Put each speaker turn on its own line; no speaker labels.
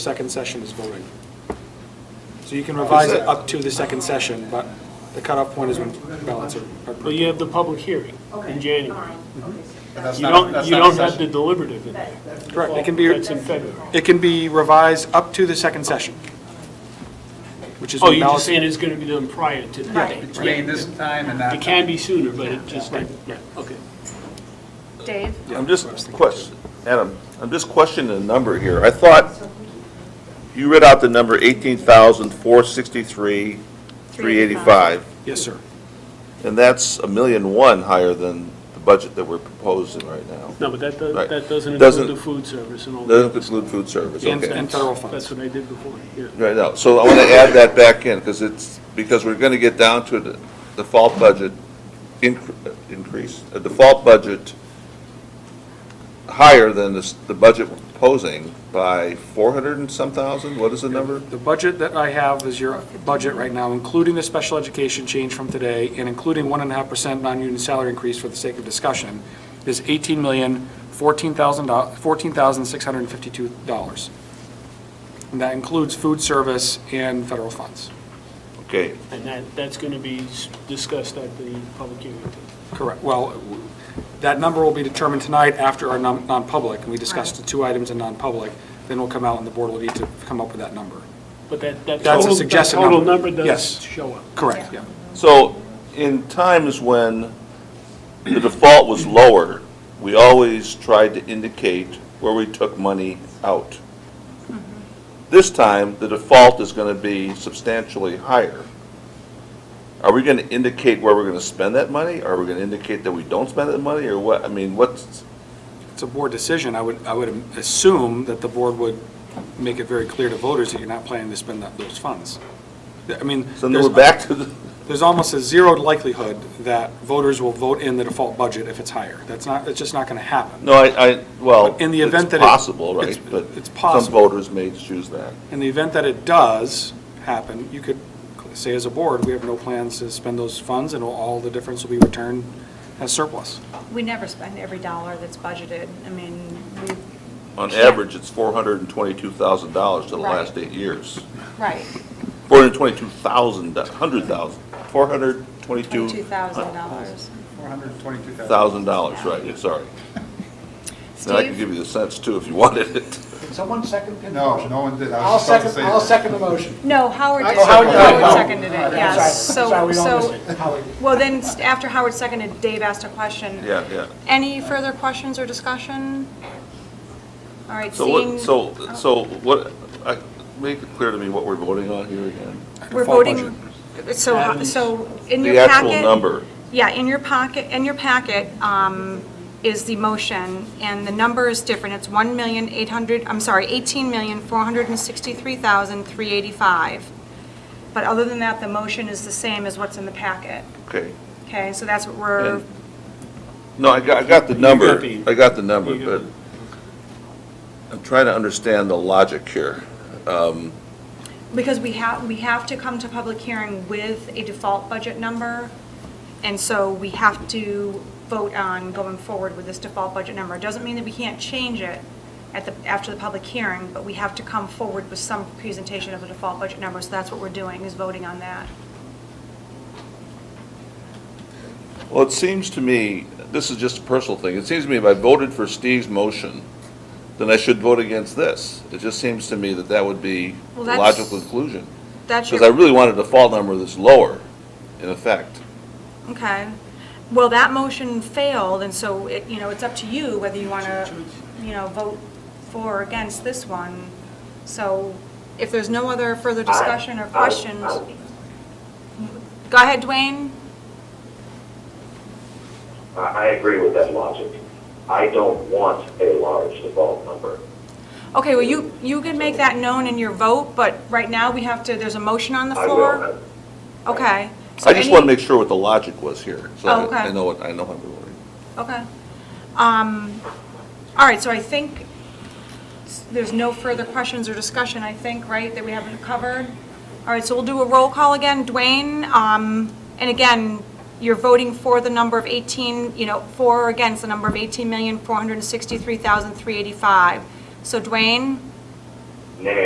second session is voting. So you can revise it up to the second session, but the cutoff point is when ballots are are
But
approved.
you have the public hearing in
Okay,
January.
fine, okay, so that's,
You don't, you don't have the deliberative in there.
that's,
Correct, it can be,
That's in February.
it can be revised up to the second session, which is
Oh,
when
you're just
ballots.
saying it's going to be done prior to the
Right.
date.
Between this time and that
It
time.
can be sooner, but it just, yeah, okay.
Dave?
I'm just question, Adam, I'm just questioning the number here. I thought you read out the number eighteen thousand, four sixty-three, three eighty-five,
Yes, sir.
and that's a million one higher than the budget that we're proposing right now.
No, but that, do-
Right.
that doesn't
Doesn't-
include the food service and all that.
Doesn't include food service,
And-
okay.
and federal
That's
funds.
what I did before, yeah.
Right now, so I want to add that back in, because it's, because we're going to get down to the default budget incre- increase, a default budget higher than this- the budget we're proposing by 400 and some thousand, what is the number?
The budget that I have is your budget right now, including the special education change from today and including one and a half percent non-union salary increase for the sake of discussion, is eighteen million, fourteen thousand, fourteen thousand, six hundred and fifty-two dollars. And that includes food service and federal funds.
Okay,
And that, that's going to be s- discussed at the public hearing. too.
Correct. Well, w- that number will be determined tonight after our non- non-public, and we discussed the two items in non-public. Then we'll come out and the board will need to come up with that number.
But that, that
That's a
total, that
suggested
total
number.
number does
Yes.
show up.
Correct, yeah.
so in times when the default was lower, we always tried to indicate where we took money out. This time, the default is going to be substantially higher. Are we going to indicate where we're going to spend that money? Are we going to indicate that we don't spend that money, or what? I mean, what's,
It's a board decision. I would, I would assume that the board would make it very clear to voters that you're not planning to spend that, those funds. I mean,
so then
there's,
we're back to the,
there's almost a zero likelihood that voters will vote in the default budget if it's higher. That's not, it's just not going to happen.
no, I, I, well,
In the event
it's
that it-
possible, right?
it's-
But
it's possible.
Some voters may choose that.
In the event that it does happen, you could say as a board, we have no plans to spend those funds and all the difference will be returned as surplus.
We never spend every dollar that's budgeted. I mean, we,
On
Yeah.
average, it's four hundred and twenty-two thousand dollars to the
Right.
last eight years.
right,
Four hundred and twenty-two thousand, hundred thousand, four hundred twenty-two
$22,000.
$422,000.
thousand dollars, right, yeah, sorry. Then I can
Steve?
give you the cents too if you wanted it.
Did someone second Pin's
No,
motion?
no one did. I
I'll
was just about to
second,
say
I'll
that.
second the motion.
No, Howard did.
Oh, Howard did.
Howard
Oh.
seconded it, yes.
Sorry, sorry,
So,
we
so,
all missed Howard.
well, then, s- after Howard seconded, Dave asked a question.
Yeah, yeah.
Any further questions or discussion? All right,
So
seeing.
what, so, so what, I, make it clear to me what we're voting on here again.
We're
Default
voting, so, so in your
The
packet.
actual number,
Yeah, in your pocket, in your packet um, is the motion, and the number is different. It's 1,800, I'm sorry, 18,463,385. But other than that, the motion is the same as what's in the packet,
okay.
okay? So that's what we're,
And- No, I got, I got the number,
the-
I got the number,
you got
but I'm trying to understand the logic here.
because we have, we have to come to public hearing with a default budget number, and so we have to vote on going forward with this default budget number. It Doesn't mean that we can't change it at the, after the public hearing, but we have to come forward with some presentation of a default budget number, so that's what we're doing, is voting on that.
Well, it seems to me, this is just a personal thing, it seems to me if I voted for Steve's motion, then I should vote against this. It just seems to me that that would be the
Well, that's-
logical conclusion.
That's your.
Because I really wanted a fall number that's lower, in effect.
Okay. Well, that motion failed, and so it, you know, it's up to you whether you want to, you know, vote for or against this one. So if there's no other further discussion or questions, go ahead, Dwayne.
I, I agree with that logic. I don't want a large default number.
Okay, well, you, you can make that known in your vote, but right now we have to, there's a motion on the
I will,
floor.
have-
Okay. So
I just
any-
want to make sure what the logic was here, so
Oh, okay.
I I know what, I know how I'm voting.
Okay. Um, All right, so I think s- there's no further questions or discussion, I think, right, that we haven't covered? All right, so we'll do a roll call again. Dwayne, um, and again, you're voting for the number of 18, you know, for or against the number of 18,463,385. So Dwayne?
nay,